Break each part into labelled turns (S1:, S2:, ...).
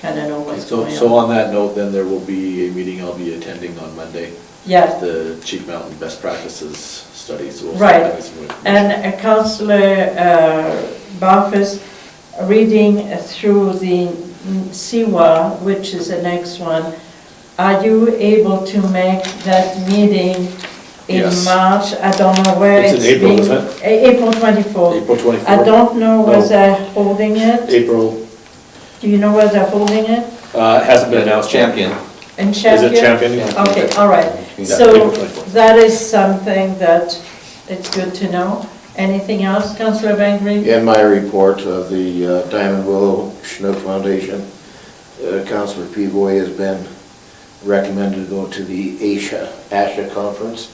S1: kind of know what's
S2: So,
S1: going
S2: so
S1: on.
S2: on that note, then there will be a meeting I'll be attending on Monday,
S1: Yeah,
S2: the Chief Mountain Best Practices Study, so we'll.
S1: Right.
S2: have some information.
S1: and uh, Councillor uh, Barfus, reading through the SIWA, which is the next one, are you able to make that meeting in
S2: Yes.
S1: March? I don't know where
S2: It's in
S1: it's
S2: April,
S1: being-
S2: isn't it?
S1: A- April 24th.
S2: April twenty-fourth.
S1: I don't know
S2: No.
S1: where they're holding it.
S2: April,
S1: Do you know where they're holding it?
S2: uh, it hasn't been announced. yet.
S3: Champion.
S1: In
S2: Is
S1: Sheffield?
S2: it champion?
S1: Okay, all right.
S2: Yeah,
S1: So
S2: April 24th.
S1: that is something that it's good to know. Anything else, Councillor Van Green?
S4: In my report of the uh, Diamond Willow Chinook Foundation, uh, Councilor Pivoy has been recommended to go to the Asia, Asha Conference,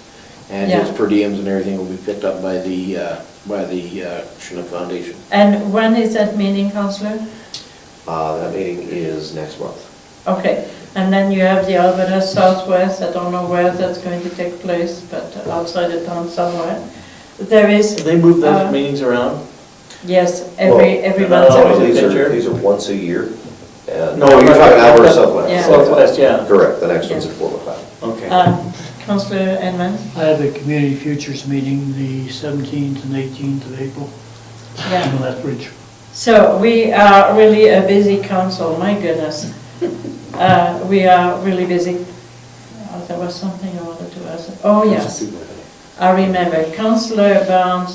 S4: and his
S1: Yeah.
S4: per diems and everything will be picked up by the, uh, by the uh, Chinook Foundation.
S1: And when is that meeting, Councillor?
S5: Uh, That meeting is next month.
S1: Okay, and then you have the Alberta Southwest, I don't know where that's going to take place, but outside of town somewhere. There is,
S6: They move
S1: Uh,
S6: those meetings around?
S1: yes, every,
S5: Well,
S1: every
S6: no,
S1: month.
S6: no,
S1: every-
S6: it's-
S5: These
S6: the
S5: are,
S6: picture?
S5: these are once a year. and-
S6: No, you're talking
S5: Our
S6: about-
S5: Southwest.
S6: Southwest, yeah.
S5: Correct, the next one's at 4 o'clock.
S6: Okay.
S1: Uh, Councillor Edmonds?
S7: I have a community futures meeting the 17th and 18th of April
S1: Yeah.
S7: in Lethbridge.
S1: So we are really a busy council, my goodness. Uh, We are really busy. Oh, There was something I wanted to ask. Oh, yes, I remember. Councillor Barnes,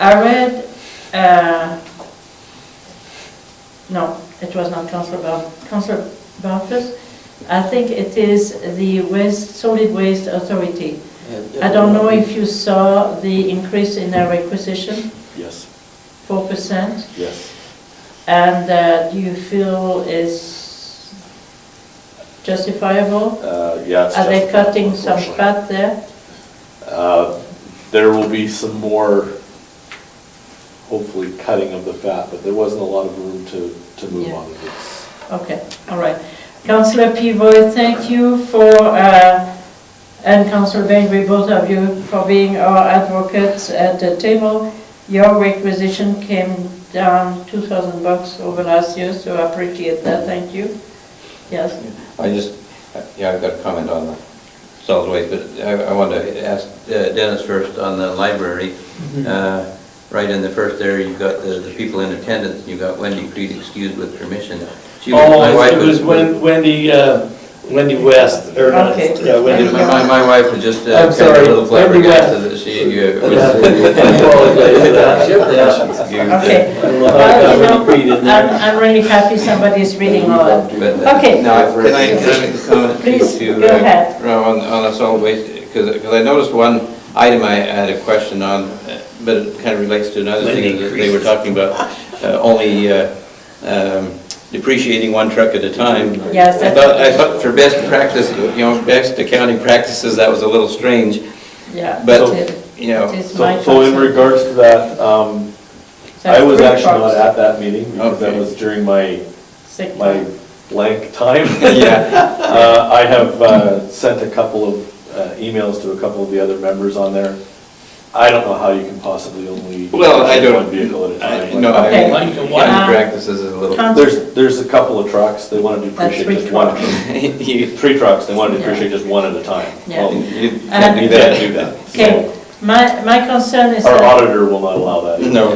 S1: I read, uh, no, it was not Councillor Barnes, Councillor Barfus. I think it is the Waste, Solid Waste Authority. I don't know if you saw the increase in their requisition,
S2: Yes,
S1: 4%.
S2: yes.
S1: And that you feel is justifiable?
S2: Uh, yeah. it's
S1: Are they
S2: justifiable,
S1: cutting some
S2: unfortunately.
S1: fat there?
S2: Uh, There will be some more, hopefully, cutting of the fat, but there wasn't a lot of room to, to move
S1: Yeah.
S2: on. It's-
S1: Okay, all right. Councillor Pivoy, thank you for, uh, and Councillor Bengry, both of you, for being our advocates at the table. Your requisition came down 2,000 bucks over last year, so I appreciate that, thank you. Yes,
S3: I just, yeah, I've got a comment on the solid waste, but I, I wanted to ask uh, Dennis first on the library.
S6: Mm-hmm.
S3: Uh, Right in the first there, you've got the, the people in attendance, you've got Wendy Creed excused with permission. She was- my
S6: Oh,
S3: wife
S6: it was Wen- Wendy, uh, Wendy West, or, not,
S1: Okay.
S6: yeah, Wendy.
S3: My, my- my wife was just uh,
S6: I'm
S3: kind of a
S6: sorry,
S3: little
S6: Wendy
S3: flabbergasted that she, uh,
S6: I apologize for that. Yeah.
S3: was.
S1: okay.
S6: Uh,
S1: Well, you
S6: Wendy
S1: know,
S6: Creed in there.
S1: I'm I'm really happy somebody's reading all that.
S3: But, uh,
S1: Okay.
S3: Now, can I, can I make a comment?
S1: Please,
S3: to,
S1: go
S3: uh,
S1: ahead.
S3: On, on the solid waste, because, because I noticed one item I had a question on, uh, but it kind of relates to another thing that they were talking about, uh, only uh, um, depreciating one truck at a time.
S1: Yes,
S3: I
S1: that-
S3: thought, I thought for best practice, you know, best accounting practices, that was a little strange,
S1: Yeah.
S3: but,
S1: it-
S3: you know,
S1: it is my
S2: So so in
S1: concern.
S2: regards to that, um,
S1: That's
S2: I was
S1: three
S2: actually not
S1: parts.
S2: at that meeting because that
S3: Okay.
S2: was during my,
S1: Sick
S2: my
S1: time.
S2: blank time.
S3: yeah,
S2: Uh, I have uh, sent a couple of uh, emails to a couple of the other members on there. I don't know how you can possibly only.
S3: Well, I don't-
S2: One vehicle at a
S3: I-
S2: time.
S3: no, I-
S1: Okay.
S3: accounting
S1: Uh,
S3: practices is a little.
S1: Council-
S2: There's, there's a couple of trucks, they want to
S1: That's
S2: depreciate
S1: three
S2: just one.
S3: You
S2: Three trucks, they want to
S1: Yeah.
S2: depreciate just one at a time.
S1: Yeah.
S2: Well,
S3: you
S1: Uh-huh.
S3: can't do
S2: You
S3: that.
S2: can't do that.
S1: Okay, my, my concern is
S2: Our
S1: that,
S2: auditor will not allow that.
S3: No.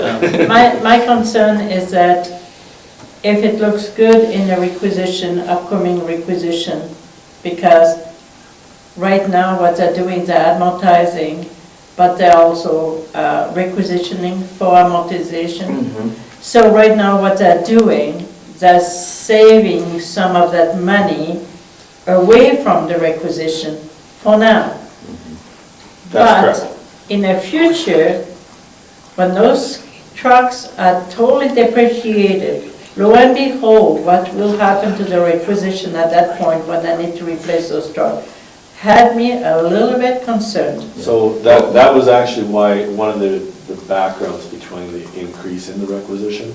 S1: my, my concern is that if it looks good in the requisition, upcoming requisition, because right now what they're doing, they're advertising, but they're also uh, requisitioning for amortization. So right now, what they're doing, they're saving some of that money away from the requisition for now.
S2: That's
S1: But in the future, when those trucks are totally depreciated, lo and behold, what will happen to the requisition at that point when I need to replace those trucks? Had me a little bit concerned.
S2: So that, that was actually why, one of the, the backgrounds between the increase in the requisition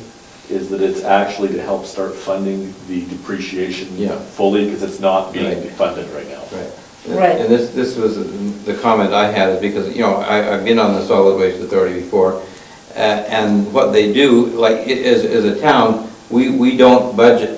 S2: is that it's actually to help start funding the depreciation
S3: Yeah.
S2: fully, because it's not being
S3: Right.
S2: funded right now.
S3: Right.
S1: Right.
S3: And this, this was the comment I had, is because, you know, I, I've been on the Solid Waste Authority before, uh, and what they do, like, i- as, as a town, we, we don't budget